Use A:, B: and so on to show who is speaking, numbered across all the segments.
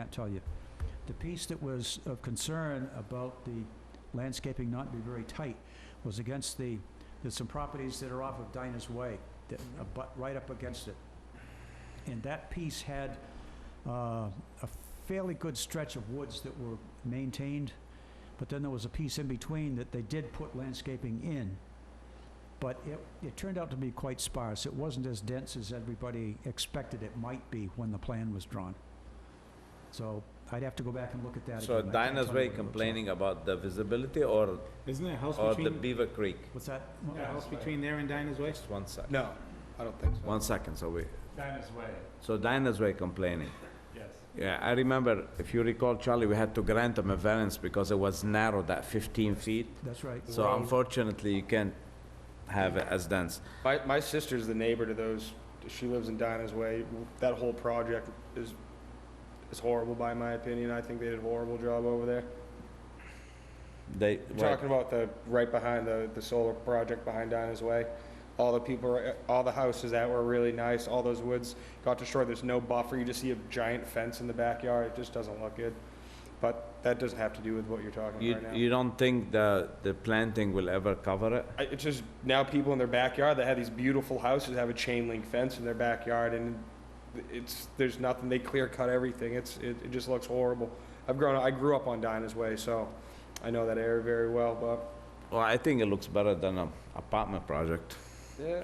A: can't tell you. The piece that was of concern about the landscaping not be very tight was against the, there's some properties that are off of Dinah's Way that abut right up against it. And that piece had uh, a fairly good stretch of woods that were maintained, but then there was a piece in between that they did put landscaping in. But it, it turned out to be quite sparse. It wasn't as dense as everybody expected it might be when the plan was drawn. So I'd have to go back and look at that.
B: So
A: again. I can't
B: Dinah's
A: tell you what
B: Way
A: it looks like.
B: complaining about the visibility or,
C: Isn't there a house
B: or Uh, the
C: between,
B: Beaver Creek?
A: What's that?
C: a house between there and Dinah's Way?
B: Just one sec,
D: No, I don't think so.
B: one second, so we,
E: Dinah's Way,
B: so Dinah's Way complaining.
E: yes.
B: Yeah, I remember, if you recall, Charlie, we had to grant them a variance because it was narrow, that 15 feet.
A: That's right.
B: So unfortunately, you can't have it as dense.
D: My, my sister's the neighbor to those, she lives in Dinah's Way. That whole project is, is horrible by my opinion. I think they did a horrible job over there.
B: They,
D: You're
B: well,
D: Talking about the, right behind the, the solar project behind Dinah's Way. All the people, are- all the houses that were really nice, all those woods got destroyed. There's no buffer. You just see a giant fence in the backyard. It just doesn't look good. But that doesn't have to do with what you're talking
B: you,
D: about right now.
B: you don't think the, the planting will ever cover it?
D: I- It's just now people in their backyard that have these beautiful houses have a chain link fence in their backyard and it's, there's nothing, they clear cut everything. It's, it, it just looks horrible. I've grown, I grew up on Dinah's Way, so I know that area very well, but,
B: Well, I think it looks better than an apartment project.
D: yeah.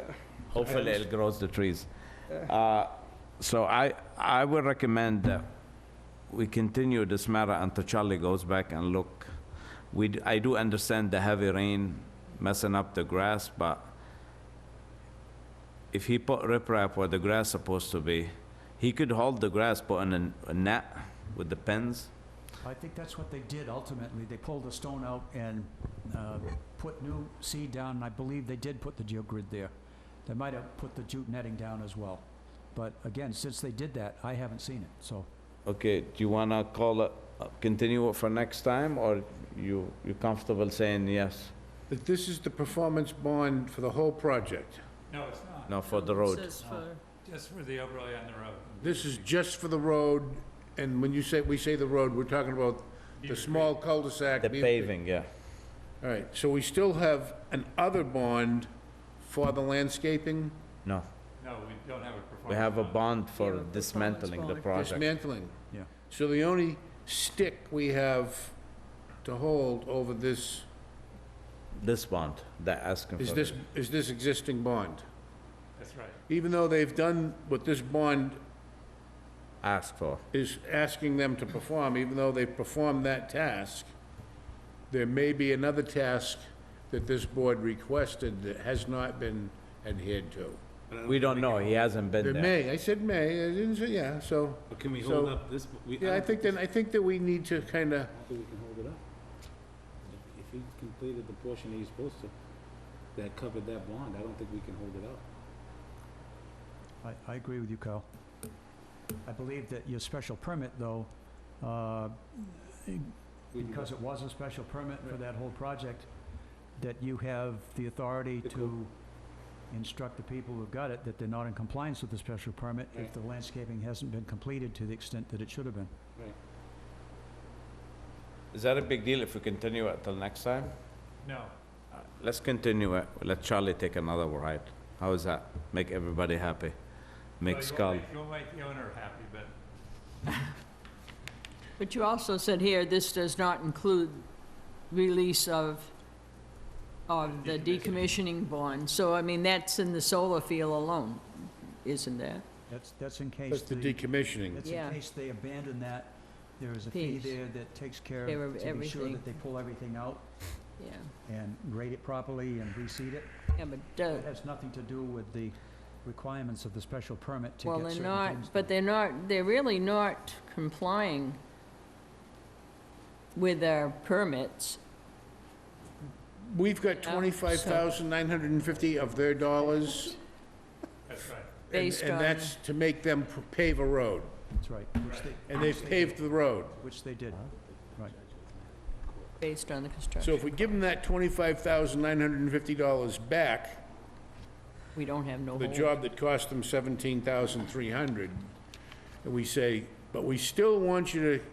B: Hopefully,
D: Items.
B: it grows the trees. Uh, So I, I would recommend that we continue this matter until Charlie goes back and look. We, d- I do understand the heavy rain messing up the grass, but if he put riprap where the grass supposed to be, he could hold the grass, put in a- a net with the pins.
A: I think that's what they did ultimately. They pulled the stone out and uh, put new seed down, and I believe they did put the geogrid there. They might have put the jute netting down as well. But again, since they did that, I haven't seen it, so.
B: Okay, do you wanna call it, uh, continue it for next time, or you, you comfortable saying yes?
F: that this is the performance bond for the whole project.
E: No, it's not,
B: No, for the road?
G: Says for-
E: just for the overlay on the road.
F: This is just for the road, and when you say, we say the road, we're talking about the small cul-de-sac.
B: The
F: Beaver-
B: paving, yeah.
F: All right, so we still have an other bond for the landscaping
B: No,
E: No, we don't have a performance.
B: we have a
E: bond.
B: bond
G: Yeah,
B: for
G: but performance
B: dismantling the
G: bond.
B: project.
F: dismantling.
A: Yeah.
F: So the only stick we have to hold over this,
B: This bond, they're asking for.
F: is this,
B: it.
F: is this existing bond.
E: That's right.
F: Even though they've done what this bond
B: Ask for.
F: is asking them to perform, even though they've performed that task, there may be another task that this board requested that has not been adhered to.
B: We don't know, he hasn't
F: There
B: been there.
F: may, I said may, I didn't say, yeah, so,
C: But Can we
F: So-
C: hold up this? we-
E: Um,
F: yeah, I
C: don't
F: think then, I think that we need to kinda,
C: I think we can hold it up. If- If he completed the portion he's supposed to, that covered that bond, I don't think we can hold it up.
A: I, I agree with you, Carl. I believe that your special permit, though, uh,
C: We can
A: because it was a special permit for that whole project, that you have the authority
C: The
A: to instruct the people who got it that they're not in compliance with the special permit if
C: Right.
A: the landscaping hasn't been completed to the extent that it should have been.
B: Is that a big deal if we continue it till next time?
E: No,
B: Let's continue it, let Charlie take another ride. How is that? Make everybody happy. Make
E: Well,
B: Scully.
E: You'll make you'll make the owner happy, but
G: But you also said here, this does not include release of, of the decommissioning bond. So, I mean, that's in the solar field alone, isn't that?
A: That's, that's in case
F: that's the
A: the,
F: decommissioning.
A: that's in
G: Yeah.
A: case they abandon that, there is a fee
G: Piece.
A: there that takes care
G: Care of
A: of, to be sure
G: everything.
A: that they pull everything out
G: Yeah,
A: and grade it properly and reseed it.
G: yeah, but, uh,
A: It has nothing to do with the requirements of the special permit to
G: well,
A: get
G: they're
A: certain things.
G: not, but they're not, they're really not complying with our permits.
F: We've got
G: so-
F: twenty-five thousand nine hundred and fifty of their dollars,
E: that's right.
F: and,
G: Based
F: and
G: on-
F: that's to make them p- pave a road,
A: That's right, which they,
F: and they've paved the road.
A: which they did.
G: Based on the
F: So
G: construction,
F: if we give them that twenty-five thousand nine hundred and fifty dollars back,
G: we don't have no
F: the
G: hold.
F: job that cost them seventeen thousand three hundred, and we say, But we still want you to